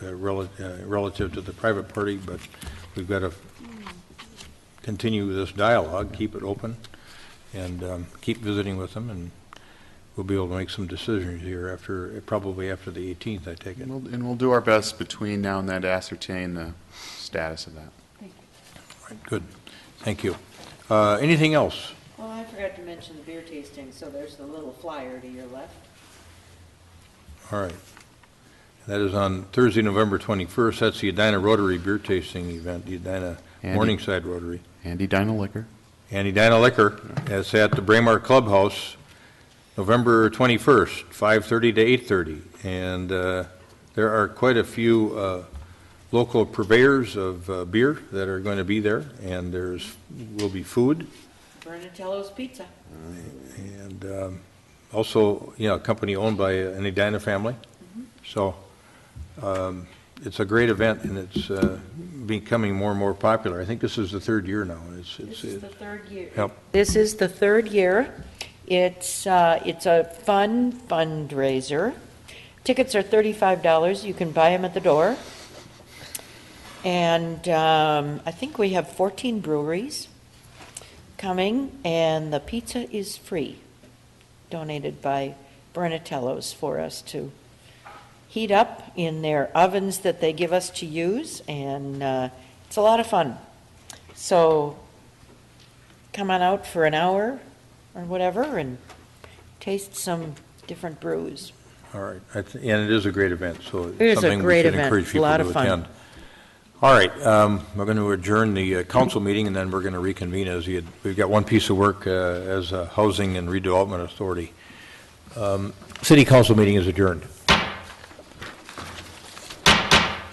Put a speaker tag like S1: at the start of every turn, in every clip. S1: uh, rela- uh, relative to the private party, but we've got to continue this dialogue, keep it open, and um, keep visiting with them, and we'll be able to make some decisions here after, probably after the 18th, I take it.
S2: And we'll- and we'll do our best between now and then to ascertain the status of that.
S1: Right, Good, thank you. Uh, Anything else?
S3: Well, I forgot to mention the beer tasting, so there's the little flyer to your left.
S1: All right. That is on Thursday, November 21st. That's the Edina Rotary Beer Tasting Event, the Edina
S2: Andy.
S1: Morningside Rotary.
S2: Andy Dino Liquor.
S1: And Edina Liquor, that's at the Braemar Clubhouse, November 21st, 5:30 to 8:30. And uh, there are quite a few uh, local purveyors of uh, beer that are going to be there, and there's, will be food.
S3: Bernatello's Pizza.
S1: And um, also, you know, a company owned by an Edina family.
S3: Mm-hmm.
S1: So um, it's a great event, and it's uh, becoming more and more popular. I think this is the third year now, and it's,
S3: This
S1: it's,
S3: is
S1: it-
S3: the third year.
S1: yep,
S4: This is the third year. It's, uh, it's a fun fundraiser. Tickets are $35. You can buy them at the door. And um, I think we have 14 breweries coming, and the pizza is free, donated by Bernatello's for us to heat up in their ovens that they give us to use, and uh, it's a lot of fun. So come on out for an hour or whatever and taste some different brews.
S1: all right. I th- And it is a great event, so
S4: is a
S1: it's something we
S4: great
S1: should
S4: event,
S1: encourage people
S4: lot
S1: to
S4: of fun.
S1: attend. All right, um, we're going to adjourn the uh, council meeting, and then we're going to reconvene as you, we've got one piece of work uh, as a Housing and Redevelopment Authority. Um, City council meeting is adjourned.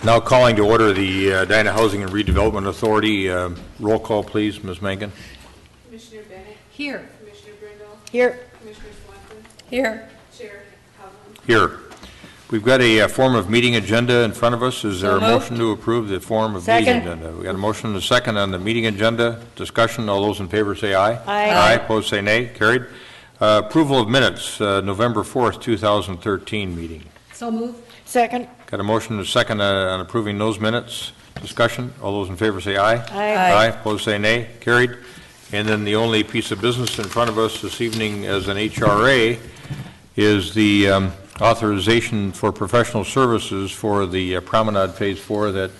S1: Now calling to order the uh, Edina Housing and Redevelopment Authority. um, Roll call, please, Ms. Mangan.
S5: Commissioner Bennett,
S4: Here.
S5: Commissioner Brindle,
S4: Here.
S5: Commissioner Swanson,
S4: Here.
S5: Chair Havlin.
S1: Here. We've got a uh, form of meeting agenda in front of us. Is there a motion to approve the form of meeting
S4: Second.
S1: agenda? We got a motion and a second on the meeting agenda. Discussion, all those in favor say aye.
S4: Aye.
S1: Aye, opposed say nay, carried. Uh, Approval of minutes, uh, November 4th, 2013 meeting.
S4: Second.
S1: Got a motion and a second uh, on approving those minutes. Discussion, all those in favor say aye.
S4: Aye. Aye.
S1: Aye, opposed say nay, carried. And then the only piece of business in front of us this evening as an HRA is the um, authorization for professional services for the uh, Promenade Phase Four that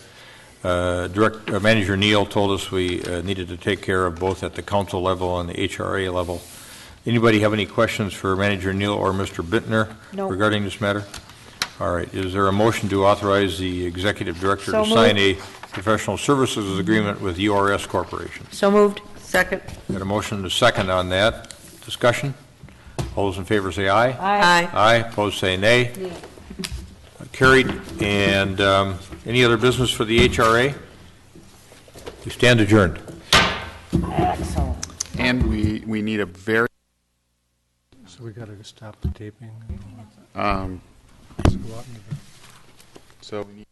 S1: uh, Direct, uh, Manager Neal told us we uh, needed to take care of both at the council level and the HRA level. Anybody have any questions for Manager Neal or Mr. Bittner
S4: No.
S1: regarding this matter? All right, is there a motion to authorize the executive director
S4: So
S1: to sign a professional services agreement with URS Corporation?
S4: So moved.
S1: Got a motion and a second on that. Discussion? All those in favor say aye.
S4: Aye.
S1: Aye, opposed say nay. Carried, and um, any other business for the HRA? We stand adjourned.
S4: Excellent.
S2: And we, we need a very,
S6: So we gotta stop the taping and all
S2: um,
S6: that. Let's go out into the-
S2: so we need